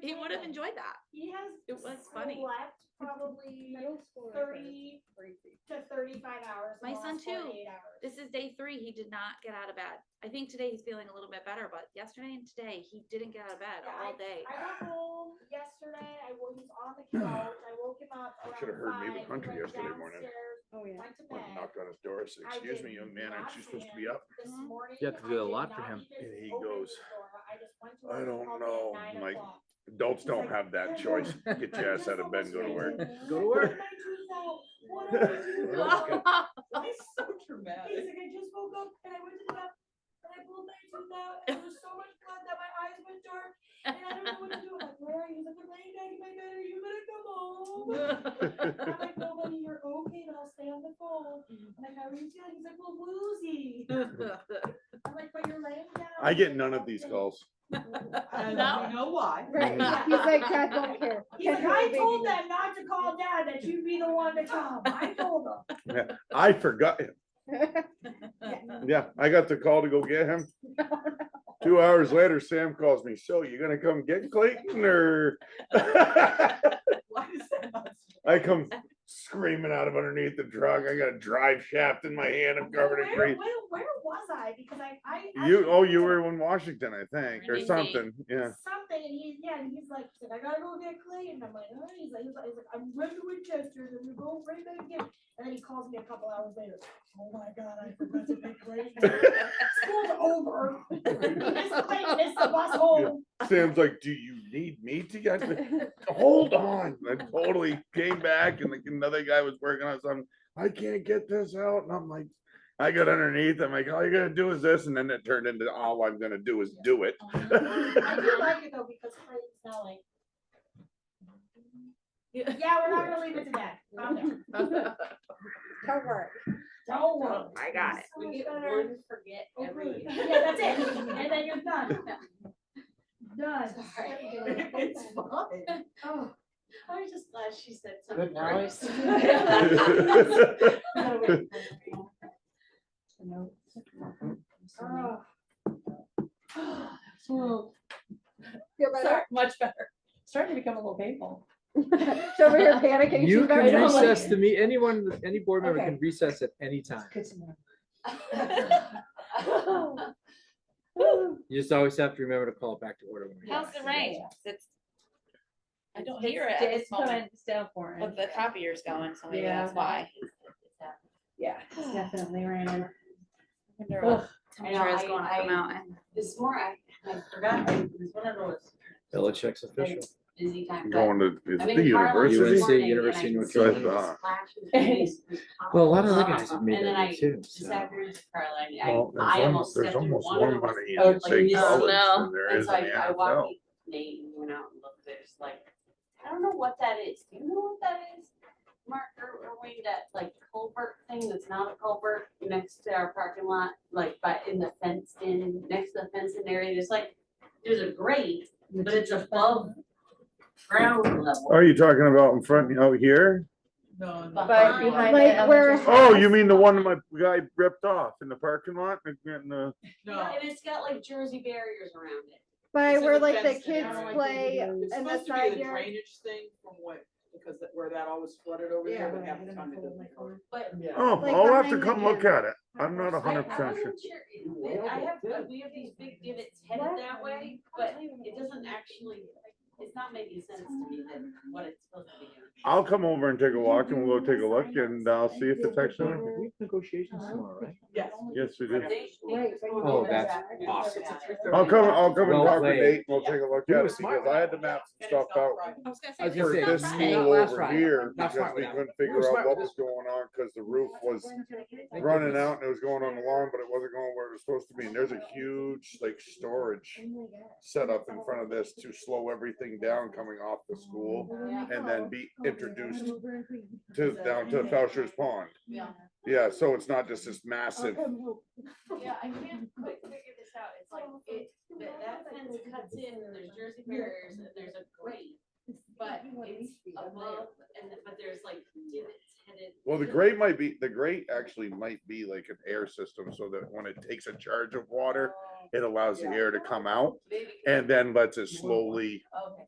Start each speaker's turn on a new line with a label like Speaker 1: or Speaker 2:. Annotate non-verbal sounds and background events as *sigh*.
Speaker 1: he would have enjoyed that.
Speaker 2: He has.
Speaker 1: It was
Speaker 2: so
Speaker 1: funny.
Speaker 2: Left
Speaker 1: *laughs*
Speaker 2: probably
Speaker 3: Middle school.
Speaker 2: thirty to thirty-five hours. in
Speaker 1: My
Speaker 2: the
Speaker 1: son
Speaker 2: last
Speaker 1: too.
Speaker 2: 48 hours.
Speaker 1: This is day three. He did not get out of bed. I think today he's feeling a little bit better, but yesterday and today he didn't get out of bed
Speaker 2: Yeah,
Speaker 1: all day.
Speaker 2: I got home yesterday, I woke, he's on
Speaker 4: *sighs*
Speaker 2: the couch, I woke him up
Speaker 4: You
Speaker 2: around
Speaker 4: should've heard me with
Speaker 2: five,
Speaker 4: Hunter
Speaker 2: went
Speaker 4: yesterday morning.
Speaker 2: downstairs,
Speaker 3: Oh, yeah.
Speaker 2: Went to
Speaker 4: Went and
Speaker 2: bed
Speaker 4: knocked on his door, said,
Speaker 2: I
Speaker 4: excuse me,
Speaker 2: did
Speaker 4: young man, aren't you
Speaker 2: not
Speaker 4: supposed to
Speaker 2: see
Speaker 4: be up?
Speaker 2: this
Speaker 1: Mhm.
Speaker 2: morning.
Speaker 5: You have to do
Speaker 2: I
Speaker 5: a
Speaker 2: did
Speaker 5: lot for
Speaker 2: not
Speaker 5: him.
Speaker 2: even
Speaker 4: And he
Speaker 2: open
Speaker 4: goes,
Speaker 2: his door. I just went to
Speaker 4: "I
Speaker 2: work,
Speaker 4: don't
Speaker 2: called me at
Speaker 4: know,
Speaker 2: nine
Speaker 4: Mike."
Speaker 2: o'clock.
Speaker 4: Adults
Speaker 2: He's
Speaker 4: don't
Speaker 2: like,
Speaker 4: have that choice. Get your ass out of bed and go to work.
Speaker 5: Go to work.
Speaker 2: What did I do?
Speaker 4: Yeah, *laughs* that's good.
Speaker 1: *laughs*
Speaker 6: so
Speaker 2: He's
Speaker 6: dramatic.
Speaker 2: like, I just woke up and I went to the bathroom and I pulled my tooth out and there was so much blood that my eyes went dark and I don't know what to do. I'm like, where are you? He's like, I'm laying down in my bed. Are you gonna come home? I'm like, no, buddy, you're okay, but I'll stay on the phone. I'm like, how are you feeling? He's like, well, woozy.
Speaker 1: *laughs*
Speaker 2: I'm like, but you're laying down.
Speaker 4: I get none of these calls.
Speaker 6: I
Speaker 1: No.
Speaker 6: don't know why.
Speaker 3: *laughs* Right, he's like, Dad don't care.
Speaker 2: He's like,
Speaker 3: Dad,
Speaker 2: I
Speaker 3: baby."
Speaker 2: told them not to call dad, that you'd be the one to come. I told them.
Speaker 4: I forgot. Yeah, I got the call to go
Speaker 2: *laughs*
Speaker 4: get him. Two hours later, Sam calls me, so you gonna come get
Speaker 2: *laughs*
Speaker 4: Clayton or?
Speaker 6: Why does that not?
Speaker 4: *laughs* I come screaming out of underneath the truck. I got a drive shaft in my hand. I'm covered in
Speaker 2: Where,
Speaker 4: grease.
Speaker 2: where, where was I? Because I, I.
Speaker 4: You,
Speaker 2: actually
Speaker 4: oh, you
Speaker 2: looked at-
Speaker 4: were in Washington, I think, or
Speaker 1: Maybe.
Speaker 4: something. Yeah.
Speaker 2: something, and he's yeah, and he's like, he's like, I gotta go get Clay, and I'm like, all right, he's like, he's like, he's like I'm running to Winchester, and we go right back again, and then he calls me a couple hours later. Oh my god, I forgot to pick Clay. School's over. *laughs* Miss Clay missed the bus home.
Speaker 4: Sam's like, do you need me to get, the-" hold on. I totally came back and like another guy was working on something. I can't get this out. And I'm like, I got underneath. I'm like, all you gotta do is this. And then it turned into all I'm gonna do is do *laughs* it.
Speaker 2: I do like it though because Clayton's now like, yeah, we're not gonna leave it to that. Calm down.
Speaker 3: Cover
Speaker 2: Don't
Speaker 7: Oh,
Speaker 2: worry.
Speaker 1: I got it.
Speaker 2: So much better.
Speaker 6: forget
Speaker 2: Okay. *laughs* Yeah, that's it. And then you're done. Done.
Speaker 7: *laughs*
Speaker 6: It's fine.
Speaker 2: Oh, I was just glad she said something.
Speaker 6: Good night.
Speaker 2: Oh. *laughs*
Speaker 3: Feel better?
Speaker 6: Much better. Starting to become a little
Speaker 3: *laughs*
Speaker 6: painful.
Speaker 3: She's over here panicking.
Speaker 5: You
Speaker 3: She's better
Speaker 5: can
Speaker 3: than me.
Speaker 5: recess the meet, anyone, any board member
Speaker 3: Okay.
Speaker 5: can recess at any time.
Speaker 6: Good to know.
Speaker 5: You just always have to remember to call it back to order. when we
Speaker 1: How's
Speaker 5: get
Speaker 1: the
Speaker 5: back.
Speaker 1: rain? It's,
Speaker 7: I don't
Speaker 1: It's-
Speaker 7: hear it
Speaker 1: it's
Speaker 7: at this moment,
Speaker 1: going-
Speaker 7: still pouring.
Speaker 1: but the copier's going, so maybe
Speaker 7: Yeah.
Speaker 1: that's why.
Speaker 7: Yeah, it's definitely raining.
Speaker 1: Temperature is
Speaker 7: I-
Speaker 1: going up the
Speaker 7: I-
Speaker 1: mountain.
Speaker 7: This morning, I I forgot, it was one of those
Speaker 5: Belichick's official.
Speaker 7: busy times. but
Speaker 4: Going to is
Speaker 7: I've
Speaker 4: it the
Speaker 7: been in Harlem this
Speaker 4: university. Ah.
Speaker 5: UNC,
Speaker 7: morning, and
Speaker 5: University
Speaker 7: I
Speaker 5: of North
Speaker 7: see these
Speaker 4: Carolina.
Speaker 7: flashes of *laughs* these-
Speaker 5: Well, a lot of the guys have
Speaker 7: And
Speaker 5: made
Speaker 7: then I-
Speaker 5: it too.
Speaker 7: This
Speaker 5: so.
Speaker 7: afternoon, Caroline, I,
Speaker 4: Well, there's
Speaker 7: I
Speaker 4: almost,
Speaker 7: almost
Speaker 4: there's
Speaker 7: stepped in
Speaker 4: almost
Speaker 7: one of
Speaker 4: more
Speaker 7: them.
Speaker 4: money
Speaker 7: Oh,
Speaker 4: in St.
Speaker 7: Jesus.
Speaker 4: College
Speaker 1: No.
Speaker 4: than there
Speaker 7: And
Speaker 4: is
Speaker 7: so
Speaker 4: in
Speaker 7: I,
Speaker 4: the
Speaker 7: I
Speaker 4: NFL.
Speaker 7: walked Nate and went out and looked, there's like, I don't know what that is, do you know what that is? Mark, or, or wait, that like culvert thing that's not a culvert next to our parking lot, like, but in the fenced in, next to the fenced in area, there's like, there's a grate, but it's above ground level.
Speaker 4: Are you talking about in front, out here?
Speaker 6: No, no.
Speaker 7: But
Speaker 3: behind
Speaker 6: Like,
Speaker 3: the where-
Speaker 6: elementary-
Speaker 4: Oh, you mean the one my guy ripped off in the parking lot? Like, in the-
Speaker 6: No.
Speaker 7: And it's got like Jersey barriers around it.
Speaker 3: By
Speaker 6: It's in
Speaker 3: where
Speaker 6: the
Speaker 3: like the
Speaker 6: fenced in
Speaker 3: kids
Speaker 6: area.
Speaker 3: play
Speaker 6: It's
Speaker 3: and
Speaker 6: supposed
Speaker 3: that's
Speaker 6: to be
Speaker 3: right
Speaker 6: a
Speaker 3: here.
Speaker 6: drainage thing from what, because that- where that always flooded over there, but half the time it doesn't. work.
Speaker 7: But
Speaker 4: Oh,
Speaker 3: Like
Speaker 4: I'll have to
Speaker 3: behind the
Speaker 4: come look
Speaker 3: gym.
Speaker 4: at it. I'm not a
Speaker 7: I- I
Speaker 4: hundred percent sure.
Speaker 7: wasn't sure. I have, uh, we have these big divots *laughs* headed that way, but it doesn't actually, it's not making sense to me that what it's supposed to be.
Speaker 4: I'll come over and take a walk and we'll take a look and I'll see if it's actually,
Speaker 5: We have negotiations tomorrow, right?
Speaker 6: Yes.
Speaker 4: yes, we do.
Speaker 7: They-
Speaker 3: Right,
Speaker 7: they-
Speaker 3: right.
Speaker 5: Oh, that's
Speaker 6: Yeah.
Speaker 5: awesome.
Speaker 6: It's at 3:30.
Speaker 4: I'll come, I'll come and
Speaker 5: Well
Speaker 4: talk to
Speaker 5: played.
Speaker 4: Nate and we'll take a look
Speaker 5: You
Speaker 4: at
Speaker 5: were
Speaker 4: it
Speaker 5: smart.
Speaker 4: because I had the maps
Speaker 6: And it's
Speaker 4: stuffed
Speaker 6: not
Speaker 4: out
Speaker 6: Friday.
Speaker 1: I was
Speaker 5: I
Speaker 1: gonna
Speaker 5: was
Speaker 1: say,
Speaker 5: gonna
Speaker 4: for
Speaker 5: say,
Speaker 4: this
Speaker 1: it's
Speaker 5: it's
Speaker 1: not
Speaker 5: not
Speaker 1: Friday.
Speaker 4: school
Speaker 5: last
Speaker 4: over
Speaker 5: Friday.
Speaker 4: here
Speaker 5: Not
Speaker 4: because we
Speaker 5: smart with that.
Speaker 4: couldn't
Speaker 5: We were
Speaker 4: figure out
Speaker 5: smart
Speaker 4: what
Speaker 5: with
Speaker 4: was going on because the roof was
Speaker 5: Thank
Speaker 4: running
Speaker 5: goodness.
Speaker 4: out and it was going on the lawn, but it wasn't going where it was supposed to be. And there's a huge like
Speaker 3: Oh
Speaker 4: storage set up in front of this to slow everything down coming off the school and then be introduced to down to Faucher's Pond.
Speaker 7: Yeah.
Speaker 4: Yeah, so it's not just this massive.
Speaker 7: Yeah, I can't quite figure this out, it's like, it, that, that fence cuts in, and there's Jersey barriers, and there's a grate, but it's above, and, then- but there's like divots headed.
Speaker 4: Well, the grate might be, the grate actually might be like an air system so that when it takes a charge of water, it allows the air to come out
Speaker 7: Maybe-
Speaker 4: and then lets it slowly
Speaker 7: Okay.